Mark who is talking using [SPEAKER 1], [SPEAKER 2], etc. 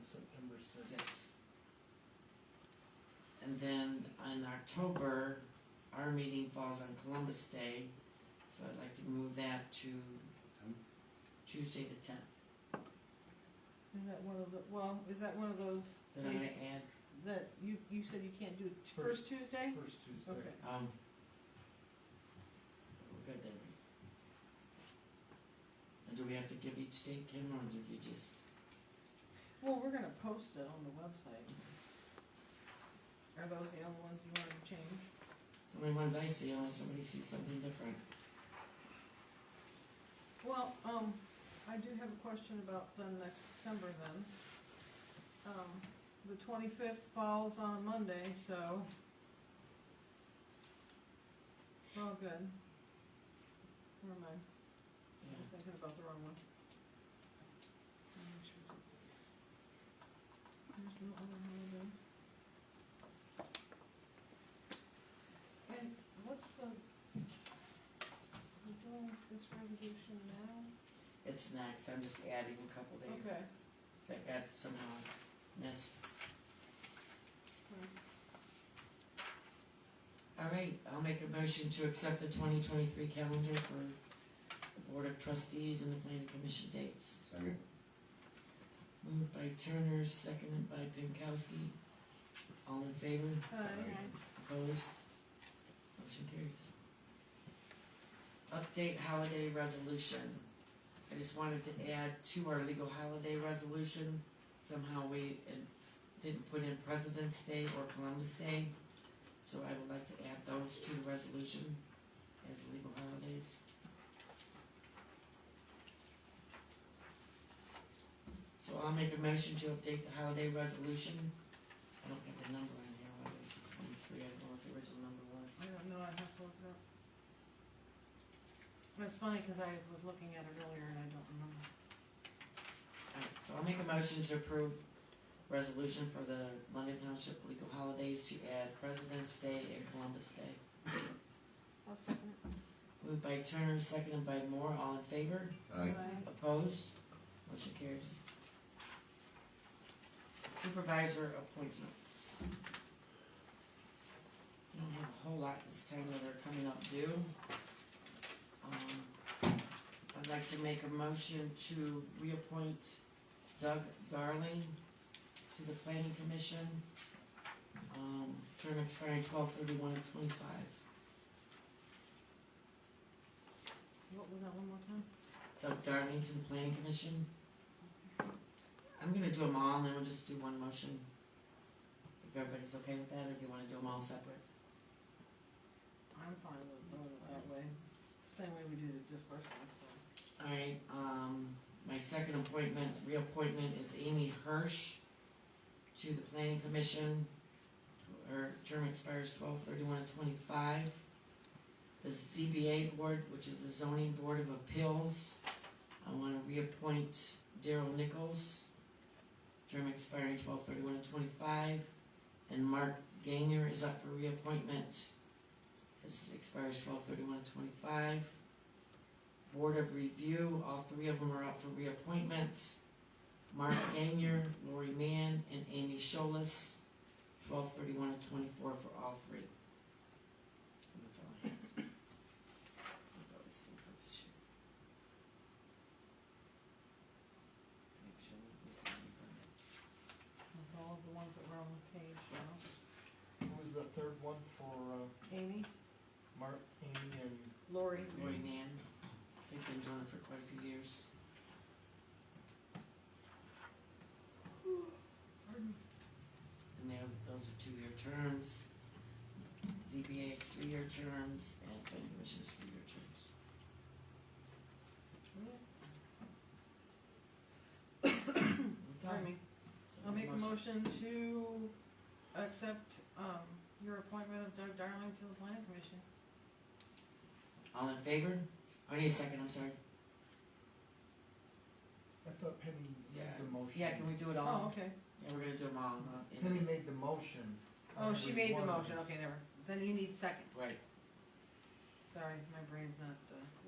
[SPEAKER 1] September sixth.
[SPEAKER 2] sixth. And then in October, our meeting falls on Columbus Day, so I'd like to move that to Tuesday the tenth.
[SPEAKER 3] Is that one of the, well, is that one of those
[SPEAKER 2] Then I
[SPEAKER 3] days
[SPEAKER 2] add,
[SPEAKER 3] that you, you said you can't do it t-
[SPEAKER 1] First.
[SPEAKER 3] first Tuesday?
[SPEAKER 1] First Tuesday.
[SPEAKER 3] Okay.
[SPEAKER 2] um, we're good then. And do we have to give each date, Kim, or do you just,
[SPEAKER 3] Well, we're gonna post it on the website. Are those the only ones you wanted to change?
[SPEAKER 2] it's the only ones I see unless somebody sees something different.
[SPEAKER 3] Well, um, I do have a question about the next December then. Um, the twenty-fifth falls on a Monday, so. We're all good. Never mind, I was
[SPEAKER 2] Yeah,
[SPEAKER 3] thinking about the wrong one. There's no other holiday. And what's the, we're doing this resolution now?
[SPEAKER 2] it's next, I'm just adding a couple days.
[SPEAKER 3] Okay.
[SPEAKER 2] That got somehow missed. All right, I'll make a motion to accept the twenty twenty-three calendar for the Board of Trustees and the Planning Commission dates.
[SPEAKER 4] Second.
[SPEAKER 2] Moved by Turner, seconded by Pinkowski. All in favor?
[SPEAKER 3] Aye.
[SPEAKER 2] Opposed? Motion carries. Update holiday resolution. I just wanted to add to our legal holiday resolution, somehow we uh, didn't put in President's Day or Columbus Day. So I would like to add those to the resolution as legal holidays. So I'll make a motion to update the holiday resolution. I don't have the number in here, what is it, twenty-three, I don't know what the original number was.
[SPEAKER 3] I don't know, I have to look it up. That's funny, cause I was looking at it earlier and I don't remember.
[SPEAKER 2] Alright, so I'll make a motion to approve resolution for the London Township legal holidays to add President's Day and Columbus Day.
[SPEAKER 3] I'll second it.
[SPEAKER 2] Moved by Turner, seconded by Moore, all in favor?
[SPEAKER 4] Aye.
[SPEAKER 2] Opposed? Motion carries. Supervisor appointments. We Don't have a whole lot this time that are coming up due. Um, I'd like to make a motion to reappoint Doug Darling to the planning commission. Um, term expiring twelve thirty-one of twenty-five.
[SPEAKER 3] What was that one more time?
[SPEAKER 2] Doug Darling to the planning commission. I'm gonna do them all, and then we'll just do one motion. If everybody's okay with that, or do you wanna do them all separate?
[SPEAKER 3] I'm fine with doing it that way, same way we do the disbursements, so.
[SPEAKER 2] Alright, um, my second appointment, reappointment is Amy Hirsch to the planning commission. Her term expires twelve thirty-one of twenty-five. The ZBA board, which is the zoning board of appeals, I wanna reappoint Daryl Nichols. Term expiring twelve thirty-one of twenty-five, and Mark Gainer is up for reappointment. His expires twelve thirty-one of twenty-five. Board of Review, all three of them are up for reappointments. Mark Gagnier, Lori Mann, and Amy Scholas, twelve thirty-one and twenty-four for all three. And that's all I have. That's all I see for this year. Make sure we don't miss anybody.
[SPEAKER 3] That's all of the ones that were on the page, so.
[SPEAKER 1] Who was the third one for, uh,
[SPEAKER 3] Amy,
[SPEAKER 1] Mark, Amy, and
[SPEAKER 3] Lori,
[SPEAKER 2] Lori Mann, they've been doing it for quite a few years. And they those are two-year terms. ZBA is three-year terms, and planning commission is three-year terms. That's all.
[SPEAKER 3] pardon me. I'll make a
[SPEAKER 2] Motion.
[SPEAKER 3] motion to accept, um, your appointment of Doug Darling to the planning commission.
[SPEAKER 2] All in favor? Oh, I need a second, I'm sorry.
[SPEAKER 1] I thought Penny made
[SPEAKER 2] Yeah.
[SPEAKER 1] the motion.
[SPEAKER 2] Yeah, can we do it
[SPEAKER 3] Oh,
[SPEAKER 2] all?
[SPEAKER 3] okay.
[SPEAKER 2] Yeah, we're gonna do them all. uh, in-
[SPEAKER 1] Penny made the motion.
[SPEAKER 3] Oh, she made the
[SPEAKER 1] One.
[SPEAKER 3] motion, okay, never. Then you need seconds.
[SPEAKER 2] Right.
[SPEAKER 3] Sorry, my brain's not, uh.